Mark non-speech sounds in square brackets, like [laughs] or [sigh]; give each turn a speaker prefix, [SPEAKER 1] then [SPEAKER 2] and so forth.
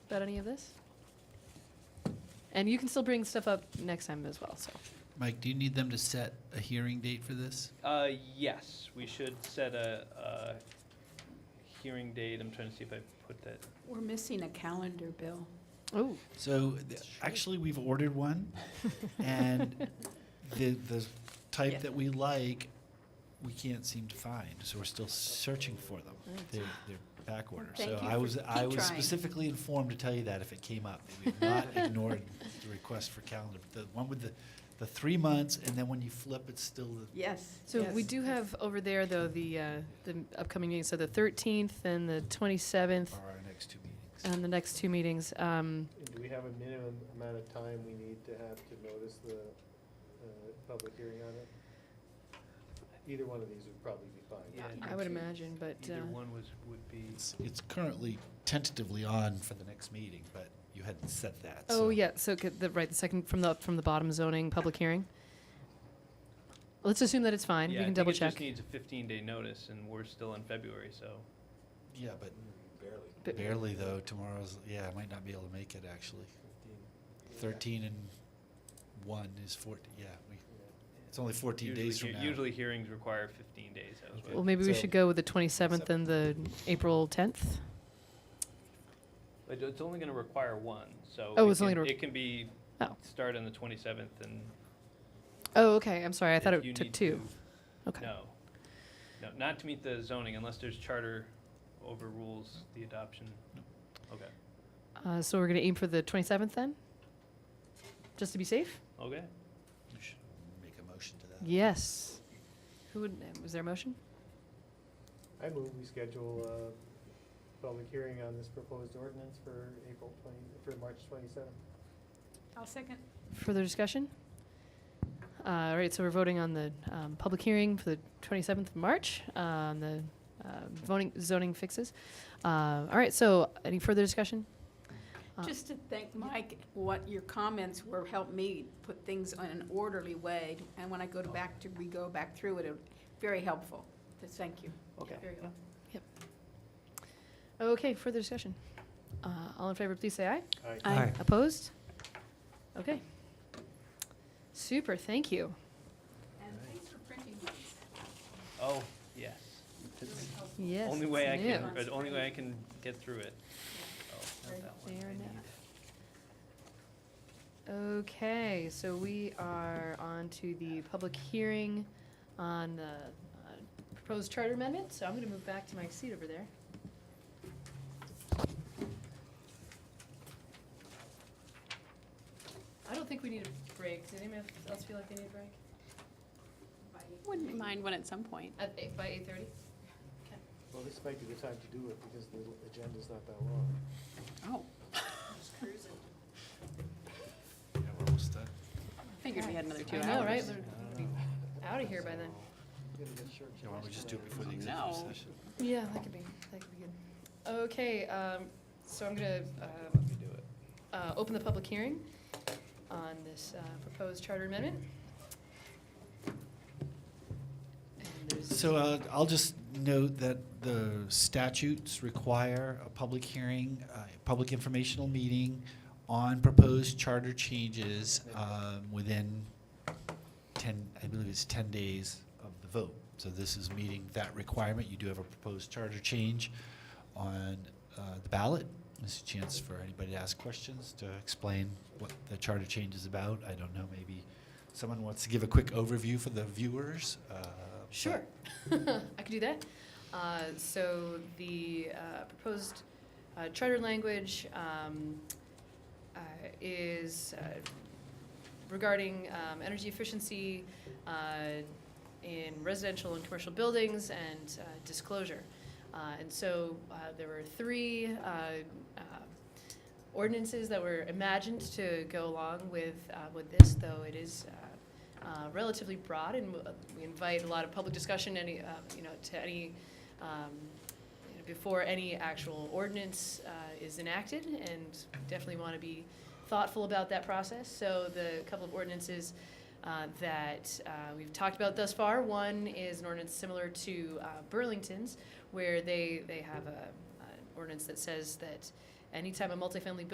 [SPEAKER 1] about any of this? And you can still bring stuff up next time as well, so.
[SPEAKER 2] Mike, do you need them to set a hearing date for this?
[SPEAKER 3] Uh, yes, we should set a, a hearing date. I'm trying to see if I put that.
[SPEAKER 4] We're missing a calendar, Bill.
[SPEAKER 1] [laughs] Oh,
[SPEAKER 2] So, th- actually, we've ordered one, and the, the
[SPEAKER 1] Yeah.
[SPEAKER 2] type that we like, we can't seem to find, so we're still searching for them. They're, they're back order.
[SPEAKER 4] Mm. Thank
[SPEAKER 2] So
[SPEAKER 4] you
[SPEAKER 2] I
[SPEAKER 4] for-
[SPEAKER 2] was, I
[SPEAKER 4] keep
[SPEAKER 2] was
[SPEAKER 4] trying.
[SPEAKER 2] specifically informed to tell you that if it came up.
[SPEAKER 4] [laughs]
[SPEAKER 2] We've not ignored the request for calendar. The one with the, the three months, and then when you flip, it's still the
[SPEAKER 4] Yes.
[SPEAKER 1] so we
[SPEAKER 4] yes.
[SPEAKER 1] do have over there, though, the, uh, the upcoming meetings, so the 13th and the 27th,
[SPEAKER 2] are our next two meetings.
[SPEAKER 1] and the next two meetings. Um,
[SPEAKER 5] And do we have a minimum amount of time we need to have to notice the uh, public hearing on it? Either one of these would probably be fine.
[SPEAKER 3] Yeah,
[SPEAKER 1] I would imagine, but,
[SPEAKER 3] Either
[SPEAKER 1] uh,
[SPEAKER 3] one was, would be,
[SPEAKER 2] It's, it's currently tentatively on for the next meeting, but you hadn't said that. so-
[SPEAKER 1] oh, yeah, so, could the- right, the second, from the, from the bottom zoning, public hearing. Let's assume that it's fine, we
[SPEAKER 3] yeah, I
[SPEAKER 1] can
[SPEAKER 3] think
[SPEAKER 1] double
[SPEAKER 3] it
[SPEAKER 1] check.
[SPEAKER 3] just needs a fifteen day notice and we're still in February, so.
[SPEAKER 2] Yeah, but
[SPEAKER 5] Barely
[SPEAKER 1] But-
[SPEAKER 2] barely though. Tomorrow's yeah, I might not be able to make it actually.
[SPEAKER 5] fifteen.
[SPEAKER 2] Thirteen and one is fourteen. Yeah, we, it's only fourteen
[SPEAKER 3] usually
[SPEAKER 2] days from
[SPEAKER 3] hea-
[SPEAKER 2] now.
[SPEAKER 3] Usually hearings require fifteen days. That was what-
[SPEAKER 1] Well, maybe we
[SPEAKER 2] So-
[SPEAKER 1] should go with the 27th and the April 10th.
[SPEAKER 3] But it's only gonna require one, so.
[SPEAKER 1] Oh,
[SPEAKER 3] it
[SPEAKER 1] it's only
[SPEAKER 3] can-
[SPEAKER 1] gonna re-
[SPEAKER 3] It can be,
[SPEAKER 1] Oh.
[SPEAKER 3] start on the twenty-seventh and.
[SPEAKER 1] Oh, okay, I'm sorry, I thought
[SPEAKER 3] if you
[SPEAKER 1] it took
[SPEAKER 3] need
[SPEAKER 1] two.
[SPEAKER 3] to-
[SPEAKER 1] Okay.
[SPEAKER 3] No, no, not to meet the zoning unless there's charter overrules the adoption. Okay,
[SPEAKER 1] Uh, so we're gonna aim for the 27th then? Just to be safe?
[SPEAKER 3] okay.
[SPEAKER 2] You should make a motion to that.
[SPEAKER 1] Yes. Who would, was there a motion?
[SPEAKER 5] I move we schedule a public hearing on this proposed ordinance for April twenty, for March twenty-seventh.
[SPEAKER 4] I'll second.
[SPEAKER 1] Further discussion? Uh, all right, so we're voting on the, um, public hearing for the 27th of March, uh, on the, uh, voting, zoning fixes. Uh, all right, so any further discussion? Uh,
[SPEAKER 4] Just to thank Mike, what your comments were helped me put things in an orderly way. And when I go to back to, we go back through it, it, very helpful. So Thank you.
[SPEAKER 3] Okay.
[SPEAKER 4] Very helpful.
[SPEAKER 1] Okay, further discussion. Uh, all in favor, please say aye.
[SPEAKER 4] Aye. Aye.
[SPEAKER 1] Opposed? Okay. Super, thank you.
[SPEAKER 4] And thanks for printing these.
[SPEAKER 3] Oh, yes. It's
[SPEAKER 1] Yes.
[SPEAKER 3] only way I
[SPEAKER 1] it's new.
[SPEAKER 3] can, uh, the only way I can get through it. Oh, not
[SPEAKER 4] Right
[SPEAKER 3] that one.
[SPEAKER 1] there
[SPEAKER 3] I
[SPEAKER 1] now.
[SPEAKER 3] need-
[SPEAKER 1] Okay, so we are on to the public hearing on the uh, proposed charter amendment, so I'm gonna move back to my seat over there. I don't think we need a break. Does anyone else feel like they need a break?
[SPEAKER 6] Wouldn't mind one at some point.
[SPEAKER 1] At eight, by eight thirty?
[SPEAKER 5] Well, this might be the time to do it because the agenda's not that long.
[SPEAKER 4] [laughs]
[SPEAKER 6] Oh,
[SPEAKER 2] Yeah, we're almost done.
[SPEAKER 6] figured we had another two
[SPEAKER 1] I
[SPEAKER 6] hours.
[SPEAKER 1] know, right? We're gonna be out of here by then.
[SPEAKER 5] We gotta make sure-
[SPEAKER 2] Yeah, why don't we just do it before the
[SPEAKER 6] No.
[SPEAKER 2] executive session?
[SPEAKER 1] Yeah, that could be, that could be good. Okay, um, so I'm gonna, uh,
[SPEAKER 3] Let me do it.
[SPEAKER 1] uh, open the public hearing on this uh, proposed charter amendment. And there's-
[SPEAKER 2] So uh, I'll just note that the statutes require a public hearing, a public informational meeting on proposed charter changes um, within 10, I believe it's 10 days of the vote. So this is meeting that requirement. You do have a proposed charter change on uh, the ballot. This is a chance for anybody to ask questions, to explain what the charter change is about. I don't know, maybe someone wants to give a quick overview for the viewers? uh, but-
[SPEAKER 1] Sure, [laughs] I could do that. Uh, So the uh, proposed uh, charter language um, uh, is uh, regarding um, energy efficiency uh, in residential and commercial buildings and uh, disclosure. Uh, And so uh, there were three uh, uh, ordinances that were imagined to go along with, uh, with this, though it is uh, uh, relatively broad, and uh, we invite a lot of public discussion, any, uh, you know, to any, um, you know, before any actual ordinance uh, is enacted, and definitely want to be thoughtful about that process. So the couple of ordinances uh, that uh, we've talked about thus far, one is an ordinance similar to uh, Burlington's, where they, they have a, an ordinance that says that Anytime a multifamily building